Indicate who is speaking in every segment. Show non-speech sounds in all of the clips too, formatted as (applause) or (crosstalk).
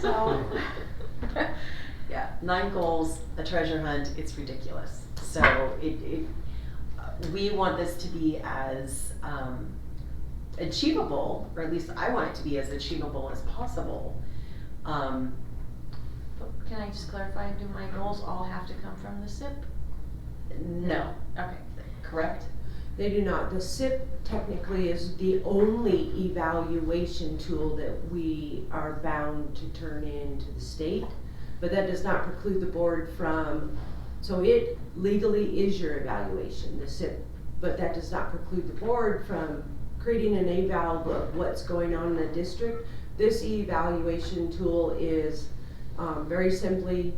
Speaker 1: So, (laughs) yeah, nine goals, a treasure hunt, it's ridiculous. So it, it, uh, we want this to be as, um, achievable, or at least I want it to be as achievable as possible. Um,
Speaker 2: But Can I just clarify, do my goals all have to come from the SIP?
Speaker 1: no,
Speaker 2: Okay.
Speaker 1: correct?
Speaker 3: They do not. The SIP technically is the only evaluation tool that we are bound to turn in to the state. But that does not preclude the board from, so it legally is your evaluation, the SIP. But that does not preclude the board from creating an eval of what's going on in the district. This evaluation tool is, um, very simply,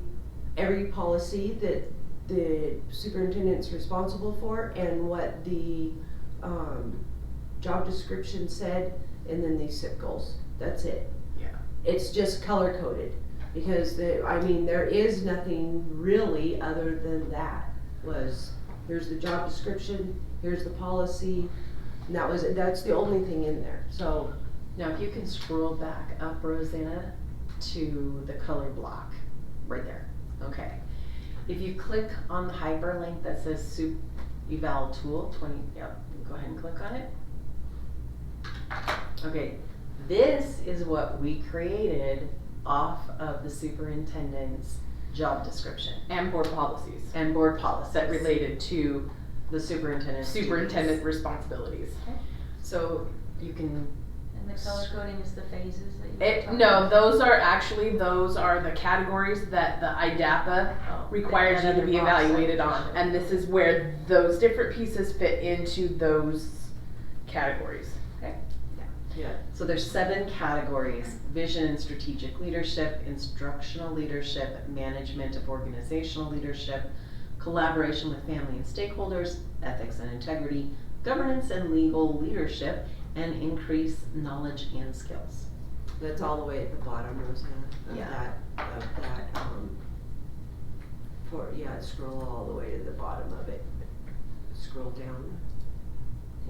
Speaker 3: every policy that the superintendent's responsible for and what the, um, job description said, and then the SIP goals, that's it.
Speaker 1: Yeah.
Speaker 3: It's just color coded, because the, I mean, there is nothing really other than that, was, here's the job description, here's the policy, and that was, it. that's the only thing in there, so.
Speaker 1: Now, if you can scroll back up, Rosanna, to the color block, right there, okay. If you click on the hyperlink that says soup eval tool twenty, yep, go ahead and click on it. Okay, this is what we created off of the superintendent's job description
Speaker 4: and board policies.
Speaker 1: and board policies that related to the superintendent's duties.
Speaker 4: Superintendent responsibilities.
Speaker 1: So you can,
Speaker 2: And the color coding is the phases that you.
Speaker 4: It,
Speaker 2: were
Speaker 4: no,
Speaker 2: talking
Speaker 4: those are actually, those are the categories that the IDAPA
Speaker 1: oh,
Speaker 4: requires
Speaker 1: that
Speaker 4: you to
Speaker 1: other
Speaker 4: be
Speaker 1: box that
Speaker 4: evaluated
Speaker 1: we
Speaker 4: on.
Speaker 1: showed.
Speaker 4: And this is where those different pieces fit into those categories.
Speaker 1: So there's seven categories, vision and strategic leadership, instructional leadership, management of organizational leadership, collaboration with family and stakeholders, ethics and integrity, governance and legal leadership, and increase knowledge and skills.
Speaker 3: That's all the way at the bottom, Rosanna, of
Speaker 1: Yeah.
Speaker 3: that, of that, um, for, yeah, scroll all the way to the bottom of it. Scroll down.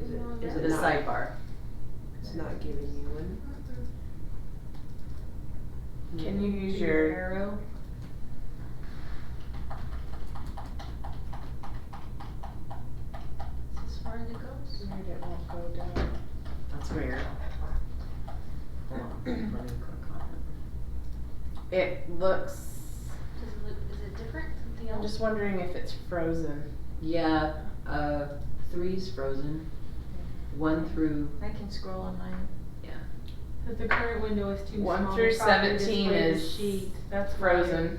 Speaker 3: Is it,
Speaker 2: No,
Speaker 3: is
Speaker 1: So
Speaker 3: it
Speaker 1: the
Speaker 3: not,
Speaker 1: sidebar.
Speaker 3: it's not giving you one?
Speaker 4: Can you
Speaker 2: about.
Speaker 4: use
Speaker 2: Your
Speaker 4: your,
Speaker 2: arrow. Is this where it goes?
Speaker 1: That's (clears throat) weird. Hold on, let me click on it.
Speaker 4: it looks,
Speaker 2: Does it look, is it different, something
Speaker 4: I'm
Speaker 2: else?
Speaker 4: just wondering if it's frozen.
Speaker 1: Yeah, uh, three's frozen, one through,
Speaker 2: I can scroll on mine.
Speaker 5: That the current window is too small.
Speaker 4: One through
Speaker 5: It's probably this
Speaker 4: 17
Speaker 5: way the
Speaker 4: is
Speaker 5: sheet. That's why
Speaker 4: Frozen.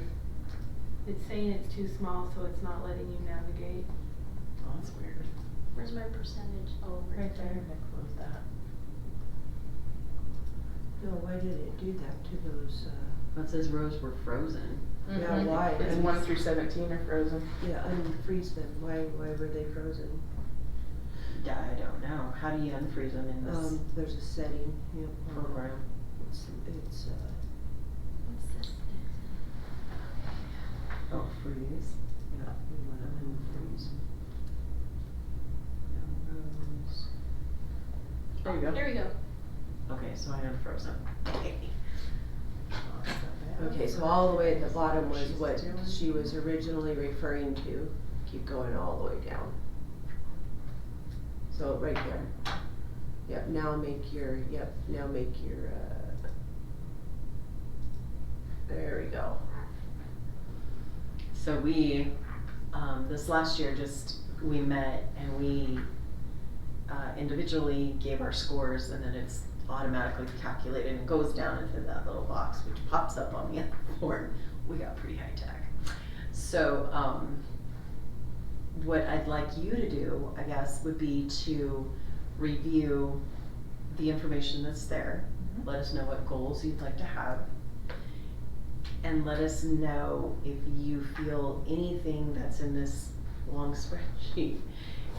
Speaker 5: It's saying it's too small, so it's not letting you navigate.
Speaker 1: oh, that's weird.
Speaker 2: Where's my percentage? Oh,
Speaker 5: Right there.
Speaker 3: No, why did it do that to those, uh,
Speaker 1: That says rows were frozen.
Speaker 3: yeah, why?
Speaker 4: Mm-hmm. It's
Speaker 3: un-
Speaker 4: one through seventeen are frozen.
Speaker 3: Yeah, unfreeze them, why, why were they frozen?
Speaker 1: Yeah, I don't know. How do you unfreeze them in this
Speaker 3: Um, there's a setting, you know, um,
Speaker 1: program?
Speaker 3: it's, it's, uh,
Speaker 2: What's this?
Speaker 1: Oh, freeze.
Speaker 3: yeah, we wanna unfreeze. Yeah, those.
Speaker 4: There you go.
Speaker 2: There we go.
Speaker 1: Okay, so I unfroze them. Okay.
Speaker 3: Okay, so all the way at the bottom was
Speaker 1: She's
Speaker 3: what
Speaker 1: doing-
Speaker 3: she was originally referring to, keep going all the way down. So right there. Yep, now make your, yep, now make your, uh, there we go.
Speaker 1: So we, um, this last year, just, we met and we, uh, individually gave our scores and then it's automatically calculated and goes down into that little box, which pops up on the other board. We got pretty high tech. So, um, what I'd like you to do, I guess, would be to review the information that's there. Let us know what goals you'd like to have. And let us know if you feel anything that's in this long (laughs) spreadsheet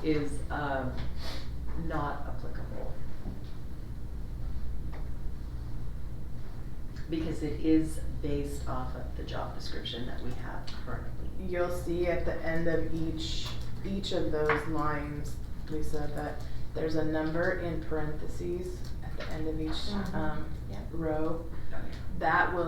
Speaker 1: is, um, not applicable. Because it is based off of the job description that we have currently.
Speaker 4: You'll see at the end of each, each of those lines, Lisa, that there's a number in parentheses at the end of each,
Speaker 5: Mhm.
Speaker 4: um,
Speaker 2: Yeah.
Speaker 4: row.
Speaker 1: Oh, yeah.
Speaker 4: That will